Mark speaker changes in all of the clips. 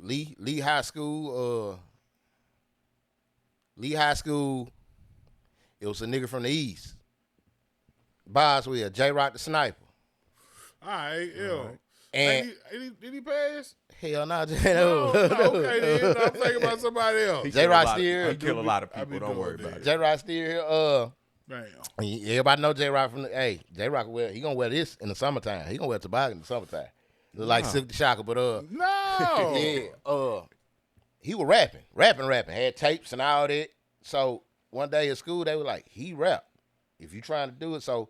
Speaker 1: Lee Lee High School. Uh, Lee High School. It was a nigga from the east. Boswell, J Rock the sniper.
Speaker 2: All right, yo.
Speaker 1: And-
Speaker 2: Ain't he- ain't he- did he pass?
Speaker 1: Hell no, J
Speaker 2: No, no, okay, then. I'm thinking about somebody else.
Speaker 1: J
Speaker 3: Kill a lot
Speaker 1: Rock
Speaker 3: of-
Speaker 1: still,
Speaker 3: He kill a lot of
Speaker 2: I be
Speaker 3: people. Don't worry
Speaker 2: doing
Speaker 3: about it.
Speaker 1: J Rock still here. Uh,
Speaker 2: Damn.
Speaker 1: and everybody know J Rock from the. Hey, J Rock wear he gonna wear this in the summertime. He gonna wear a toboggan in the summertime. Look like Silk the Shocker, but uh,
Speaker 2: No.
Speaker 1: yeah, uh, he was rapping, rapping, rapping. Had tapes and all that. So one day at school, they were like, "He rap. If you trying to do it." So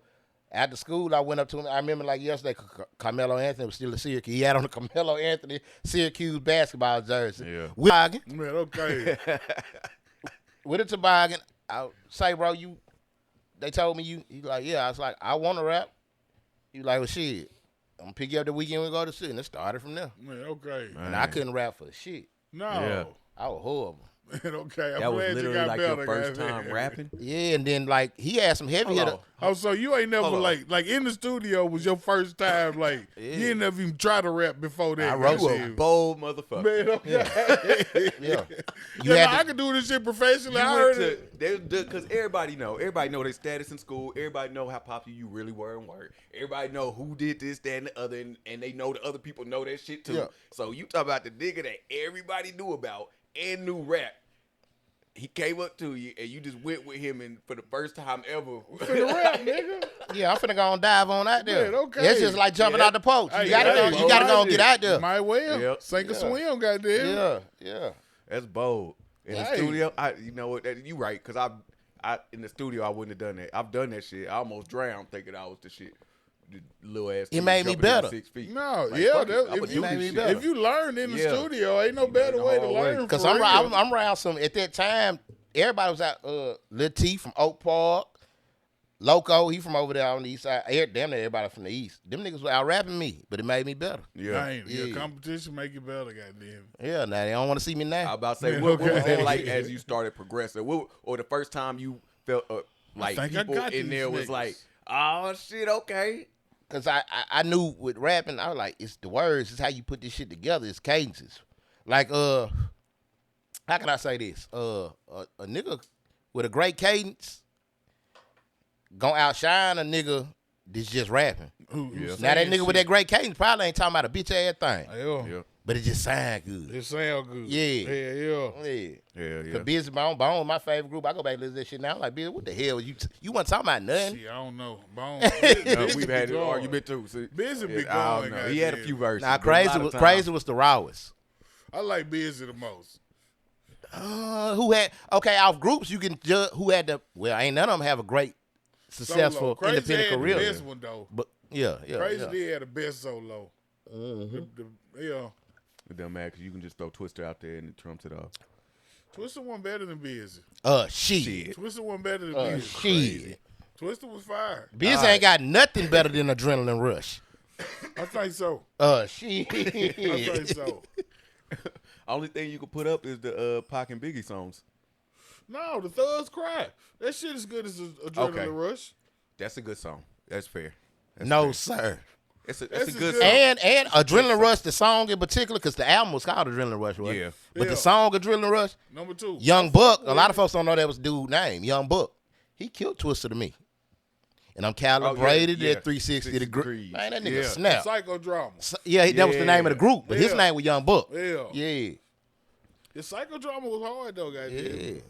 Speaker 1: after school, I went up to him. I remember like yesterday, C- C- Carmelo Anthony was still a Syracuse. He had on a Carmelo Anthony Syracuse basketball jersey.
Speaker 3: Yeah.
Speaker 1: With, toboggan-
Speaker 2: Man, okay.
Speaker 1: with a toboggan, I say, bro, you. They told me you. He like, yeah. I was like, I want to rap. He like, well, shit. I'm gonna pick you up the weekend. We go to shit, and it started from there.
Speaker 2: Man, okay.
Speaker 1: And I couldn't rap for shit.
Speaker 2: No.
Speaker 3: Yeah.
Speaker 1: I was horrible.
Speaker 2: Man, okay. I'm
Speaker 3: That was
Speaker 2: glad you
Speaker 3: literally
Speaker 2: got
Speaker 3: like
Speaker 2: better.
Speaker 3: your first
Speaker 2: goddamn.
Speaker 3: time rapping.
Speaker 1: Yeah, and then like he had some heavy hitter.
Speaker 3: Hold
Speaker 2: Oh, so you ain't never
Speaker 3: on.
Speaker 2: like like in the studio was your first time like you ain't never even try to rap before that.
Speaker 1: I wrote
Speaker 3: You
Speaker 1: Shit.
Speaker 3: a bold motherfucker.
Speaker 2: Man, okay.
Speaker 1: Yeah,
Speaker 2: Yeah,
Speaker 1: you
Speaker 2: no, I
Speaker 1: had to,
Speaker 2: could do this shit professionally.
Speaker 3: You
Speaker 2: I
Speaker 3: went
Speaker 2: heard
Speaker 3: to,
Speaker 2: it.
Speaker 3: because everybody know, everybody know their status in school. Everybody know how popular you really were and were. Everybody know who did this, that, and the other, and, and they know the other people know that shit too.
Speaker 1: Yeah.
Speaker 3: So you talk about the nigga that everybody knew about and knew rap. He came up to you and you just went with him, and for the first time ever,
Speaker 2: Finna rap, nigga.
Speaker 1: yeah. I'm finna go and dive on out there.
Speaker 2: Man, okay.
Speaker 1: It's just like jumping
Speaker 3: Yeah.
Speaker 1: out the poach. You
Speaker 2: Hey,
Speaker 1: gotta
Speaker 2: hey,
Speaker 1: go. You gotta go
Speaker 2: boy,
Speaker 1: and get out there.
Speaker 2: Might well
Speaker 3: Yep.
Speaker 2: sink or
Speaker 1: Yeah.
Speaker 2: swim, goddamn.
Speaker 1: yeah, yeah.
Speaker 3: that's bold. In the
Speaker 2: Right.
Speaker 3: studio, I you know what? That, you right? Because I, I in the studio, I wouldn't have done that. I've done that shit. I almost drowned thinking I was the shit. The Little ass. kid
Speaker 1: made me
Speaker 3: jumping in
Speaker 1: better.
Speaker 3: Six feet.
Speaker 2: No,
Speaker 3: Like,
Speaker 2: yeah.
Speaker 3: fuck it,
Speaker 2: That,
Speaker 3: I'ma
Speaker 2: if,
Speaker 3: do
Speaker 2: you,
Speaker 3: this
Speaker 1: Made me
Speaker 3: shit.
Speaker 1: better.
Speaker 2: if you learn in the
Speaker 3: Yeah.
Speaker 2: studio, ain't no better
Speaker 3: the
Speaker 2: way to
Speaker 3: hard way.
Speaker 2: learn.
Speaker 1: Cause
Speaker 2: for
Speaker 1: I'm,
Speaker 2: real.
Speaker 1: ra- I'm I'm around some at that time. Everybody was out. Uh, Lil T from Oak Park, Loco. He from over there on the east side. Eh, Damn near everybody from the east. Them niggas were out rapping me, but it made me better.
Speaker 3: Yeah.
Speaker 2: Damn, yeah.
Speaker 1: Yeah.
Speaker 2: competition make you better, goddamn.
Speaker 1: Yeah, now they don't want to see me
Speaker 3: I
Speaker 1: now.
Speaker 3: was about to say,
Speaker 2: Man,
Speaker 3: what, what was
Speaker 2: okay.
Speaker 3: it like as you started progressing? What, or the first time you felt uh, like
Speaker 2: think I
Speaker 3: people
Speaker 2: got
Speaker 3: in
Speaker 2: these
Speaker 3: there
Speaker 2: niggas.
Speaker 3: was like, oh shit, okay.
Speaker 1: Cause I, I I knew with rapping, I was like, it's the words, it's how you put this shit together, it's cadences. Like uh, how can I say this? Uh, a, a nigga with a great cadence gonna outshine a nigga that's just rapping.
Speaker 2: Who- who
Speaker 1: Now that
Speaker 2: saying
Speaker 1: nigga with that
Speaker 2: shit?
Speaker 1: great cadence probably ain't talking about a bitch ass thing,
Speaker 2: Yeah.
Speaker 1: but it just sound good.
Speaker 2: It sound good.
Speaker 1: Yeah.
Speaker 2: Yeah, yeah.
Speaker 1: Yeah.
Speaker 3: Yeah,
Speaker 1: The Busy Bone, Bone, my favorite group. I go back and listen to that shit now. I'm like, bitch, what the hell? You you weren't talking about nothing.
Speaker 2: Shit, I don't know. Bone.
Speaker 3: No,
Speaker 2: Busy
Speaker 3: we've had
Speaker 2: be
Speaker 3: an
Speaker 2: gone.
Speaker 3: argument too. See,
Speaker 2: Busy be
Speaker 3: Yeah, I
Speaker 2: gone,
Speaker 3: don't know. He had a
Speaker 2: goddamn.
Speaker 3: few verses.
Speaker 1: Nah,
Speaker 3: but a lot
Speaker 1: crazy
Speaker 3: of
Speaker 1: was
Speaker 3: times-
Speaker 1: crazy was the rawest.
Speaker 2: I like busy the most.
Speaker 1: Uh, who had okay off groups you can judge who had the well ain't none of them have a great
Speaker 2: Solo.
Speaker 1: successful
Speaker 2: Crazy
Speaker 1: independent
Speaker 2: had
Speaker 1: career
Speaker 2: The best one though.
Speaker 1: but yeah yeah,
Speaker 2: Crazy
Speaker 1: yeah. Mm-hmm.
Speaker 2: did had the best solo. The, the, yeah,
Speaker 3: It don't matter because you can just throw Twister out there and it trumps it off.
Speaker 2: Twister one better than busy.
Speaker 1: uh she
Speaker 3: Shit.
Speaker 2: Twister one better than
Speaker 1: uh,
Speaker 2: busy.
Speaker 1: she
Speaker 2: Twister was fire.
Speaker 1: Biz ain't got nothing better than adrenaline rush
Speaker 2: I think so.
Speaker 1: uh she
Speaker 2: I think so.
Speaker 3: Only thing you can put up is the uh, Pac and Biggie songs.
Speaker 2: No, the thugs cry. That shit is good as a adrenaline
Speaker 3: Okay.
Speaker 2: rush.
Speaker 3: That's a good song. That's fair. That's
Speaker 1: no
Speaker 3: fair.
Speaker 1: sir
Speaker 3: It's a, that's
Speaker 2: This is
Speaker 3: a good
Speaker 2: good.
Speaker 3: song.
Speaker 1: and and adrenaline rush the song in particular because the album was called adrenaline rush right?
Speaker 3: Yeah.
Speaker 1: but
Speaker 2: Yeah.
Speaker 1: the song adrenaline rush
Speaker 2: Number two,
Speaker 1: Young Buck. A lot of folks don't know that was dude name. Young Buck. He killed Twister to me, and I'm calibrated
Speaker 3: yeah.
Speaker 1: at 360 degrees.
Speaker 3: Degrees.
Speaker 1: Man, that
Speaker 3: Yeah.
Speaker 1: nigga
Speaker 2: psycho
Speaker 1: snapped. snap.
Speaker 2: psychodrama.
Speaker 1: So- yeah, he- that was the name of the
Speaker 3: Yeah.
Speaker 1: group, but his
Speaker 2: Yeah.
Speaker 1: name was Young Buck.
Speaker 2: Yeah.
Speaker 1: yeah,
Speaker 2: The psychodrama was hard though, goddamn.
Speaker 1: yeah.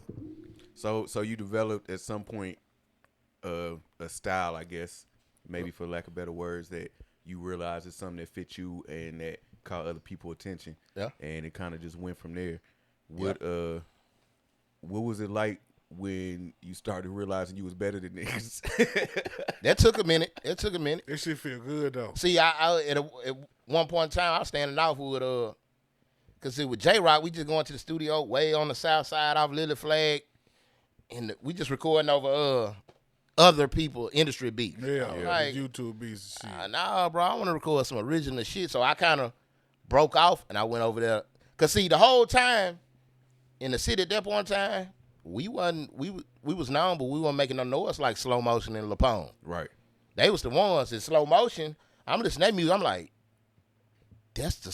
Speaker 3: So so you developed at some point uh, a style, I guess, maybe for lack of better words, that you realize is something that fits you and that caught other people attention.
Speaker 1: Yeah.
Speaker 3: And it kind of just went from there. What uh what was it like when you started realizing you was better than niggas?
Speaker 1: That took a minute. That took a minute.
Speaker 2: That shit feel good though.
Speaker 1: See, I, I at, a, at one point in time, I was standing off with uh, cause it was J Rock. We just going to the studio way on the south side off Lily Flag, and we just recording over uh other people industry beats.
Speaker 2: Yeah,
Speaker 1: I'm
Speaker 2: yeah.
Speaker 1: like,
Speaker 2: YouTube beats and shit.
Speaker 1: Uh, nah, bro, I want to record some original shit. So I kind of broke off and I went over there. Cause see, the whole time in the city at that point in time, we wasn't we wa- we was known, but we weren't making no noise like slow motion and Lapone.
Speaker 3: right.
Speaker 1: They was the ones in slow motion. I'm listening to that music. I'm like, that's the